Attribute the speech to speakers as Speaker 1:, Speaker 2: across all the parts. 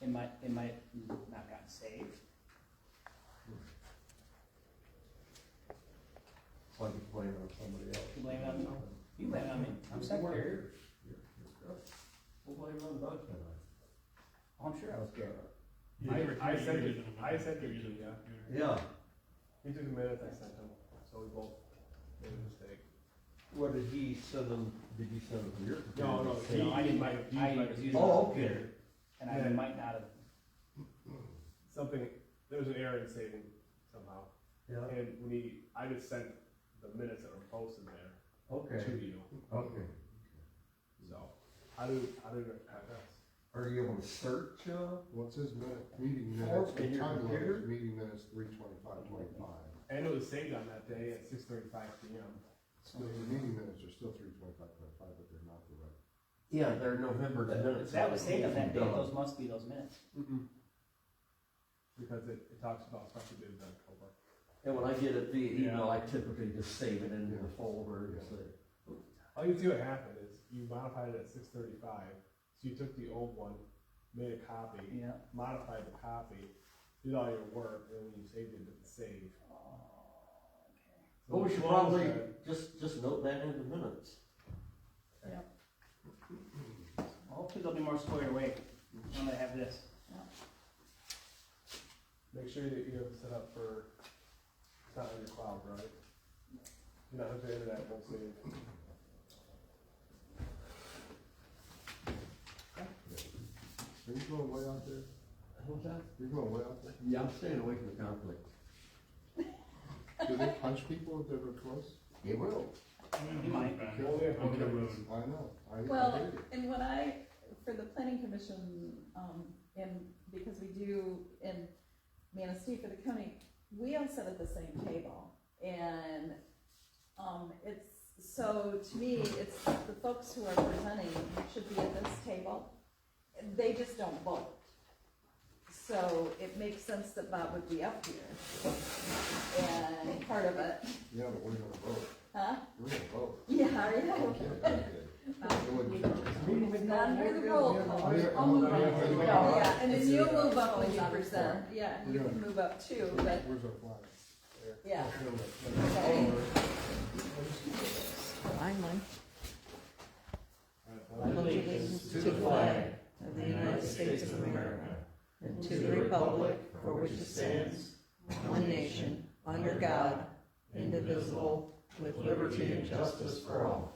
Speaker 1: it might, it might not got saved.
Speaker 2: Why do you blame it on somebody else?
Speaker 1: You blame it on someone? You blame it on me, I'm secretary. We'll blame it on the budget. Oh, I'm sure I was there.
Speaker 3: I, I sent it, I sent it to you,
Speaker 4: using
Speaker 3: yeah.
Speaker 2: Yeah,
Speaker 3: He took a minute, I sent him, so we both made a mistake.
Speaker 2: what did he send them, did he send them here?
Speaker 3: No, no,
Speaker 1: So no, I didn't,
Speaker 3: my-
Speaker 1: I was using
Speaker 2: Oh,
Speaker 1: my
Speaker 2: okay.
Speaker 1: computer, and I
Speaker 3: Yeah.
Speaker 1: might not have,
Speaker 3: Something, there was an error in saving somehow,
Speaker 2: Yeah,
Speaker 3: and when he, I just sent the minutes that were posted there
Speaker 2: okay,
Speaker 3: to you,
Speaker 2: okay.
Speaker 3: so. How do, how do you rectify this?
Speaker 2: Are you able to search, uh,
Speaker 5: What's his minute, meeting
Speaker 2: Four
Speaker 5: minutes,
Speaker 2: in
Speaker 5: the
Speaker 2: your
Speaker 5: time
Speaker 2: computer?
Speaker 5: limit, meeting minutes, three twenty-five, twenty-five.
Speaker 3: And it was saved on that day at six thirty-five P M.
Speaker 5: Still, the meeting minutes are still three twenty-five, twenty-five, but they're not the right.
Speaker 2: yeah, they're November the minutes.
Speaker 1: if that was saved on that day,
Speaker 2: Done.
Speaker 1: those must be those minutes.
Speaker 3: Because it, it talks about special bids in October.
Speaker 2: And when I get it via email,
Speaker 3: Yeah.
Speaker 2: I typically just save it into the folder and say,
Speaker 3: All you see what happened is you modified it at six thirty-five, so you took the old one, made a copy,
Speaker 1: Yeah.
Speaker 3: modified the copy, did all your work, and when you saved it, it didn't save. So
Speaker 2: well, uh, we
Speaker 3: as
Speaker 2: should
Speaker 3: long as
Speaker 2: probably
Speaker 3: that-
Speaker 2: just, just note that in the minutes.
Speaker 1: Hopefully they'll be more squared away, I'm gonna have this.
Speaker 3: Make sure that you have it set up for, it's not on your cloud, right? You're not hooked to internet, won't save.
Speaker 5: Are you going way out there?
Speaker 2: What's that?
Speaker 5: You're going way out there?
Speaker 2: Yeah, I'm staying away from the conflict.
Speaker 5: Do they punch people if they were close?
Speaker 2: They will.
Speaker 1: You might.
Speaker 3: Only if
Speaker 4: On the
Speaker 3: it's-
Speaker 4: road.
Speaker 5: I know, I, I
Speaker 6: Well,
Speaker 5: hear you.
Speaker 6: and what I, for the planning commission, um, and because we do in Manistee for the county, we all sit at the same table. And, um, it's, so to me, it's the folks who are presenting should be at this table. They just don't vote. So it makes sense that Bob would be up here. And part of it,
Speaker 5: Yeah, but we're gonna vote,
Speaker 6: huh?
Speaker 5: we're gonna vote.
Speaker 6: Yeah, yeah.
Speaker 5: Okay, okay. It wouldn't count.
Speaker 6: Not under the roll call, I'll move on, yeah, and then you'll move up when you present, yeah, and you can move up too, but,
Speaker 5: Where's our flag? There.
Speaker 6: yeah.
Speaker 5: Here, look.
Speaker 6: Okay.
Speaker 2: Allegiance to the flag
Speaker 7: of the United States of America and to the republic for which it stands, one nation, under God, indivisible, with liberty and justice for all.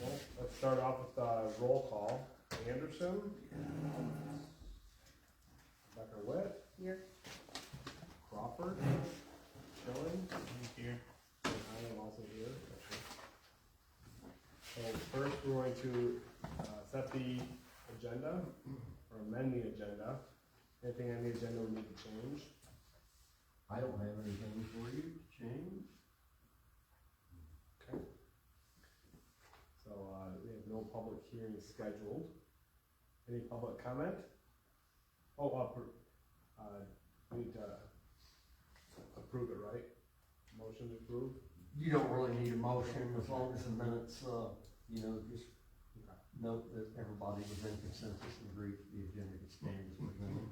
Speaker 3: Well, let's start off with the roll call. Anderson? Becker Witt?
Speaker 6: Here.
Speaker 3: Crawford? Schilling?
Speaker 4: Here.
Speaker 3: And I am also here. So first, we're going to uh, set the agenda, or amend the agenda. Anything on the agenda we need to change?
Speaker 2: I don't have anything for you to change.
Speaker 3: So, uh, we have no public hearing scheduled. Any public comment? Oh, uh, pr- uh, we need to approve it, right? Motion to approve?
Speaker 2: You don't really need a motion as long as the minutes, uh, you know, just
Speaker 3: Okay.
Speaker 2: note that everybody was in consensus and agreed to the agenda that stands with them.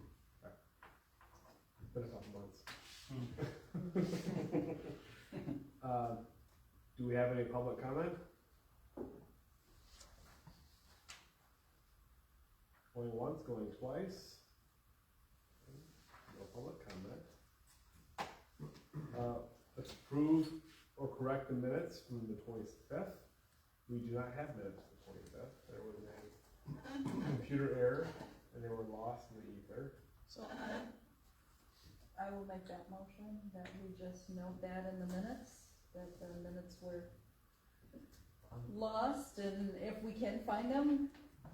Speaker 3: It's been a couple months. Uh, do we have any public comment? Going once, going twice. No public comment. Uh, let's approve or correct the minutes from the twenty-fifth. We do not have minutes from the twenty-fifth. There was a computer error and they were lost in the ether.
Speaker 6: So I, I will make that motion, that we just note that in the minutes, that the minutes were lost, and if we can find them,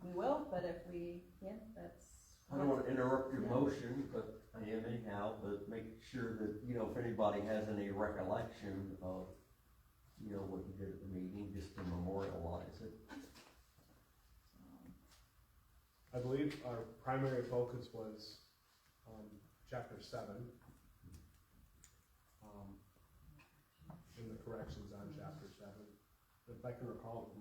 Speaker 6: we will, but if we can't, that's.
Speaker 2: I don't wanna interrupt your motion, but I am anyhow, but make sure that, you know, if anybody has any recollection of, you know, what you did at the meeting, just to memorialize it.
Speaker 3: I believe our primary focus was um, chapter seven. Um, and the corrections on chapter seven. If I can recall,